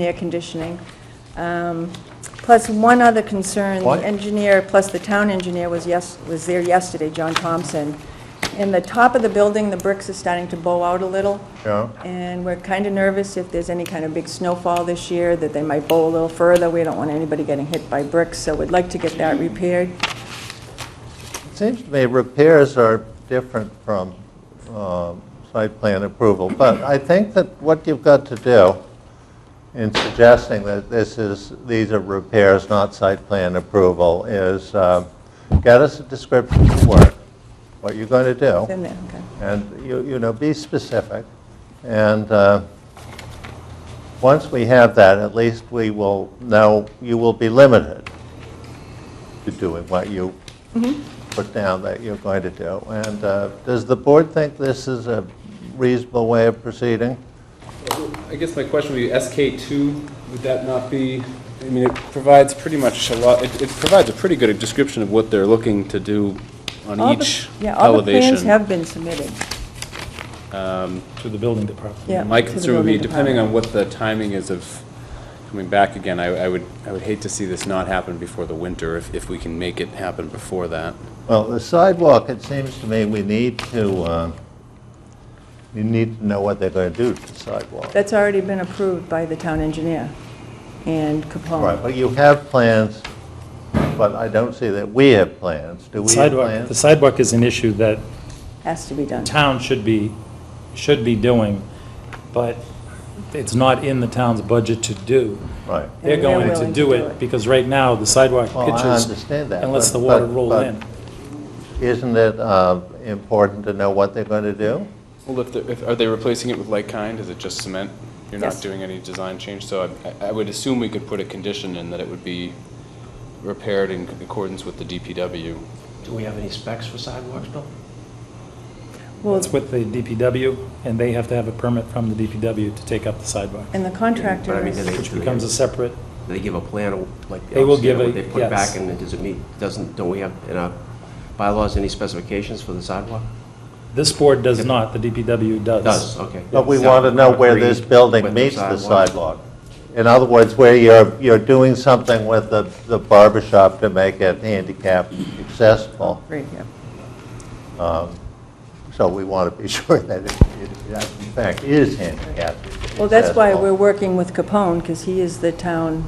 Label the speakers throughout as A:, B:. A: and air conditioning. Um, Plus, one other concern, the
B: What?
A: engineer, plus the town engineer was yes, was there yesterday, John Thompson. In the top of the building, the bricks are starting to bow out a little.
B: Yeah.
A: And we're kind of nervous if there's any kind of big snowfall this year, that they might bow a little further. We don't want anybody getting hit by bricks, so we'd like to get that repaired.
B: Seems to me repairs are different from um, site plan approval, but I think that what you've got to do in suggesting that this is, these are repairs, not site plan approval, is um, get us a description of the work, what you're going to do,
A: Then, there, okay.
B: and, you you know, be specific. And uh, once we have that, at least we will know, you will be limited to doing what you put down that you're going to do. And uh, does the board think this is a reasonable way of proceeding?
C: I guess my question would be, SK2, would that not be, I mean, it provides pretty much a lot, it it provides a pretty good description of what they're looking to do on
A: All the-
C: each elevation.
A: Yeah, all the plans have been submitted,
D: To the building department.
A: yeah.
C: My
A: to the
C: concern would be,
A: building
C: depending on
A: department.
C: what the timing is of coming back again, I I would, I would hate to see this not happen before the winter, if if we can make it happen before that.
B: Well, the sidewalk, it seems to me we need to, uh, you need to know what they're going to do to the sidewalk.
A: That's already been approved by the town engineer and Capone.
B: Right, but you have plans, but I don't see that we have plans. Do we have
D: Sidewalk, the
B: plans?
D: sidewalk is an issue that
A: Has to be done.
D: town should be, should be doing, but it's not in the town's budget to do.
B: Right.
D: They're
A: they're
D: going
A: willing
D: to do it, because right now, the sidewalk
B: Well, I
D: pitches.
B: understand that,
D: And lets
B: but-
D: the water
B: but-
D: roll
B: but-
D: in.
B: Isn't it uh, important to know what they're going to do?
C: Well, if, the- if, are they replacing it with like kind? Is it just cement? You're
A: Yes.
C: not doing any design change, so I- I, I would assume we could put a condition in that it would be repaired in accordance with the DPW.
E: Do we have any specs for sidewalks, Bill?
A: Well,
D: It's with the DPW, and they have to have a permit from the DPW to take up the sidewalk,
A: and the
E: But I
A: contractor
E: mean, do
A: is,
E: they-
D: which
E: do they-
D: becomes a separate,
E: do They give a plan, of, like.
D: They will
E: obviously,
D: give
E: what
D: a-
E: They put
D: yes.
E: back, and it does it meet, doesn't, don't we have in our bylaws any specifications for the sidewalk?
D: this board does not, the DPW does.
E: Does, okay.
B: But we want to know where this building
E: With
B: meets the
E: sidewalk.
B: sidewalk. In other words, where you're, you're doing something with the the barber shop to make it handicap accessible.
A: right here.
B: So we want to be sure that it, it- that in fact, is handicap accessible.
A: Well, that's why we're working with Capone, because he is the town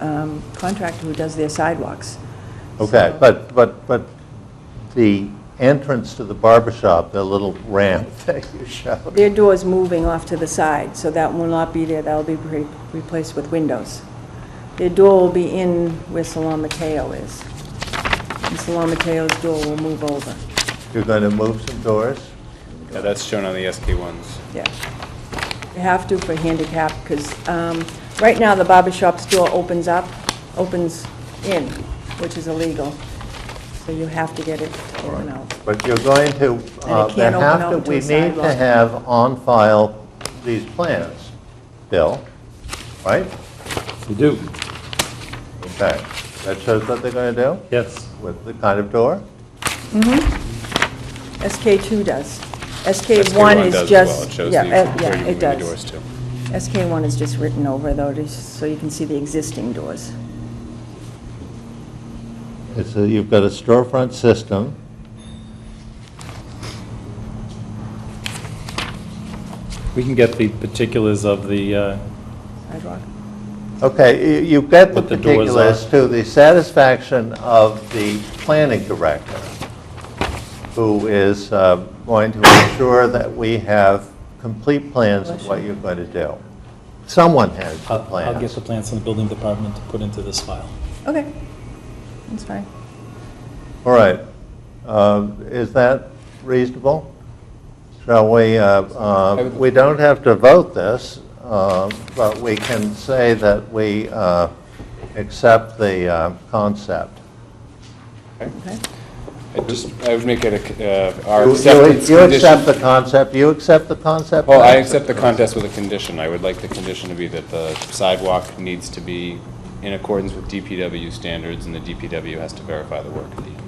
A: um, contractor who does their sidewalks.
B: Okay, but, but, but the entrance to the barber shop, the little ramp that you showed,
A: Their door's moving off to the side, so that will not be there, that'll be re- replaced with windows. Their door will be in where Salon Mateo is. And Salon Mateo's door will move over,
B: you're going to move some doors?
C: Yeah, that's shown on the SK ones.
A: yeah. You have to for handicap, because right now, the barber shop's door opens up, opens in, which is illegal, so you have to get it to open out.
B: But you're going to, uh,
A: can't
B: there
A: open
B: have
A: up
B: to,
A: to
B: we
A: a
B: need to
A: sidewalk.
B: have on file these plans, Bill, right?
D: We do,
B: Okay, that shows what they're going to
D: yes.
B: do with the kind of door?
A: SK2 does.
C: SK
A: SK1
C: does
A: is
C: as well. It
A: just,
C: shows
A: yeah,
C: the-
A: uh,
C: where
A: yeah,
C: you're moving
A: it
C: the
A: does.
C: doors to.
A: SK1 is just written over, though, to- so you can see the existing doors.
B: It's, a- you've got a storefront system.
D: We can get the particulars of the, uh,
A: Sidewalk.
B: Okay, you- you've got the
D: What the doors are.
B: particulars to the satisfaction of the planning director, who is uh, going to ensure that we have complete plans of what you're going to do. Someone has the
D: I'll I'll get
B: plans.
D: the plans from the building department to put into this file.
A: Okay, that's fine.
B: All right. Um, Is that reasonable? Shall we, uh, uh, we don't have to vote this, um, but we can say that we uh, accept the uh, concept.
A: Okay.
C: I just, I would make it a, uh, our
B: You-
C: acceptance
B: You accept
C: condition.
B: the concept, you accept the concept?
C: Well, I accept the contest with a condition. I would like the condition to be that the sidewalk needs to be in accordance with DPW standards, and the DPW has to verify the work at the end.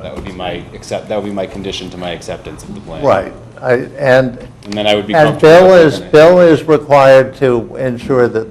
C: That would be my accept, that would be my condition to my acceptance of the plan.
B: Right, I- and,
C: And then I would be
B: and
C: comfortable
B: Bill
C: with
B: is,
C: looking at it.
B: Bill is required to ensure that